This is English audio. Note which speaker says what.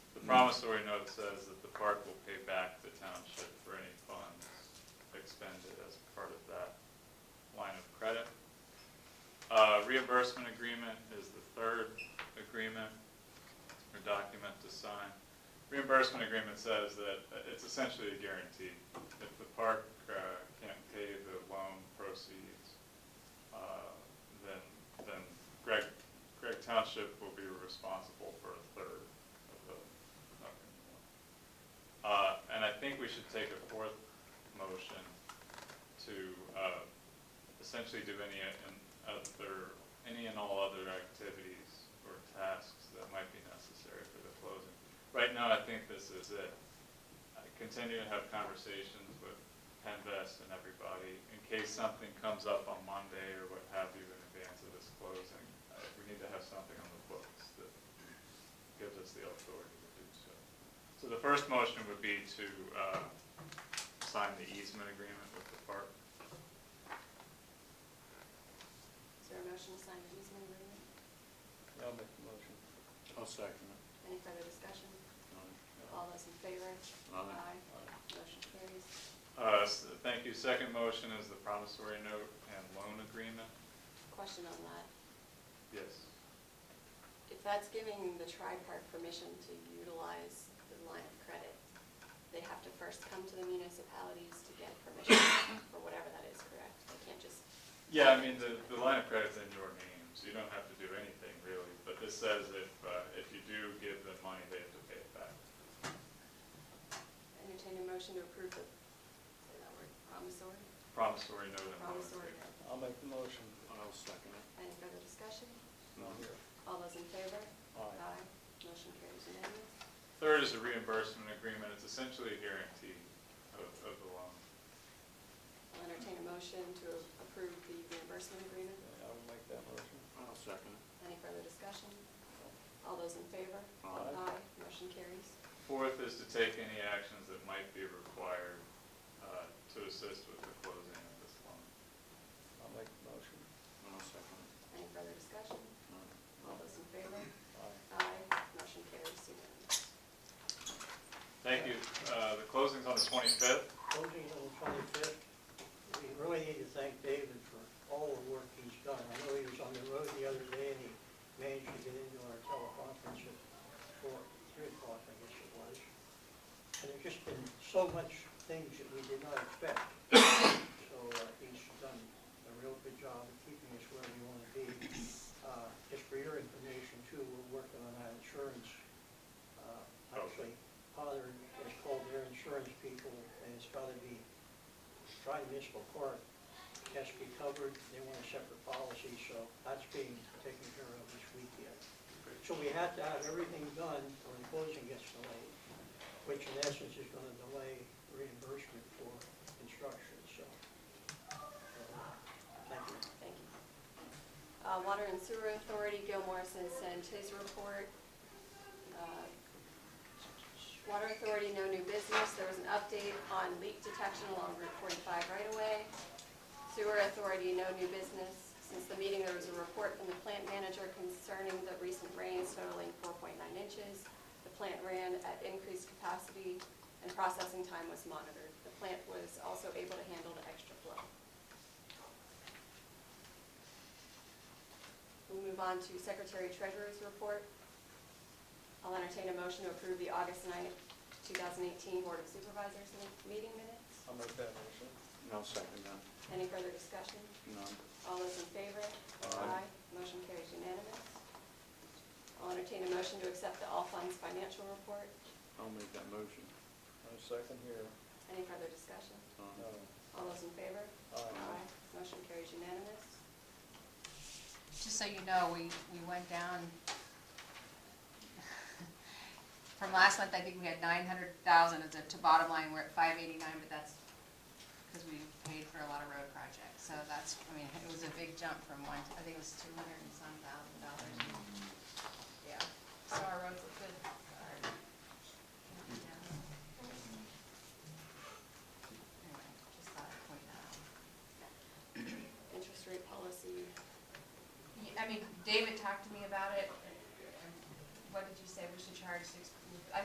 Speaker 1: promissory note says that the park will pay back the township for any funds expended as part of that line of credit. Uh, reimbursement agreement is the third agreement or document to sign. Reimbursement agreement says that uh, it's essentially a guarantee. If the park, uh, can't pay the loan proceeds, uh, then, then Greg, Greg Township will be responsible for a third of the, of the loan. Uh, and I think we should take a fourth motion to, uh, essentially do any and other, any and all other activities or tasks that might be necessary for the closing. Right now, I think this is it. I continue to have conversations with Penvest and everybody in case something comes up on Monday or what have you in advance of this closing. Uh, We need to have something on the books that gives us the authority to do so. So the first motion would be to uh, sign the easement agreement with the park.
Speaker 2: Is there a motion to sign the easement agreement?
Speaker 3: I'll make the motion.
Speaker 4: I'll second
Speaker 2: Any further discussion?
Speaker 4: it.
Speaker 2: All those in favor? Aye. Motion carries.
Speaker 1: Uh, s- Thank you. Second motion is the promissory note and loan agreement.
Speaker 2: Question on that.
Speaker 1: Yes.
Speaker 2: If that's giving the tri-park permission to utilize the line of credit, they have to first come to the municipalities to get permission for whatever that is, correct? They can't just,
Speaker 1: Yeah, I mean, the, the line of credit's in your name, so you don't have to do anything really, but this says if, uh, if you do give them money, they have to pay it back.
Speaker 2: entertain a motion to approve the, say that word, promissory?
Speaker 1: Promissory note and loan
Speaker 2: Promissory
Speaker 1: agreement.
Speaker 2: note.
Speaker 3: I'll make the motion.
Speaker 4: I'll second it.
Speaker 2: Any further discussion?
Speaker 3: Not here.
Speaker 2: All those in favor?
Speaker 3: Aye.
Speaker 2: Motion carries unanimous.
Speaker 1: Third is a reimbursement agreement, it's essentially a guarantee of, of the loan.
Speaker 2: I'll entertain a motion to approve the reimbursement agreement.
Speaker 3: I will make that motion.
Speaker 4: I'll second it.
Speaker 2: Any further discussion? All those in favor?
Speaker 4: Aye.
Speaker 2: Motion carries.
Speaker 1: Fourth is to take any actions that might be required, uh, to assist with the closing of this loan.
Speaker 3: I'll make the motion.
Speaker 4: I'll second it.
Speaker 2: Any further discussion?
Speaker 4: No.
Speaker 2: All those in favor?
Speaker 3: Aye.
Speaker 2: Aye. Motion carries unanimous.
Speaker 1: Thank you, uh, the closing's on the twenty-fifth,
Speaker 5: Closing on the twenty-fifth, we really need to thank David for all the work he's done. I know he was on the road the other day and he managed to get into our teleconference at four, three o'clock, I guess it was. And there's just been so much things that we did not expect. So uh, he's done a real good job of keeping us where we want to be. Uh, Just for your information too, we're working on our insurance. Uh, Actually, Potter has called their insurance people and it's got to be Tri Municipal Court has to be covered. They want a separate policy, so that's being taken care of this weekend. So we had to have everything done or the closing gets delayed, which in essence is gonna delay reimbursement for construction, so. uh, Thank you.
Speaker 2: Thank you. Uh, Water and Sewer Authority, Gil Morrison sent his report. Uh, Water Authority, no new business. There was an update on leak detection along Route 45 right away. Sewer Authority, no new business. Since the meeting, there was a report from the plant manager concerning the recent rains totaling 4.9 inches. The plant ran at increased capacity and processing time was monitored. The plant was also able to handle the extra flow. We'll move on to Secretary Treasurer's report. I'll entertain a motion to approve the August 9th, 2018 Board of Supervisors mi- meeting minutes.
Speaker 3: I'll make that motion.
Speaker 4: I'll second that.
Speaker 2: Any further discussion?
Speaker 4: No.
Speaker 2: All those in favor?
Speaker 4: Aye.
Speaker 2: Motion carries unanimous. I'll entertain a motion to accept the all funds financial report.
Speaker 4: I'll make that motion.
Speaker 3: No second here.
Speaker 2: Any further discussion?
Speaker 4: No.
Speaker 3: No.
Speaker 2: All those in favor?
Speaker 3: Aye.
Speaker 2: Motion carries unanimous.
Speaker 6: Just so you know, we, we went down, from last month, I think we had nine hundred thousand, it's a, to bottom line, we're at five eighty-nine, but that's because we paid for a lot of road projects, so that's, I mean, it was a big jump from one, I think it was two hundred and some thousand dollars. Yeah, so our roads look good. Our- yeah. Anyway, just thought I'd point that out.
Speaker 2: Interest rate policy,
Speaker 6: Yeah, I mean, David talked to me about it,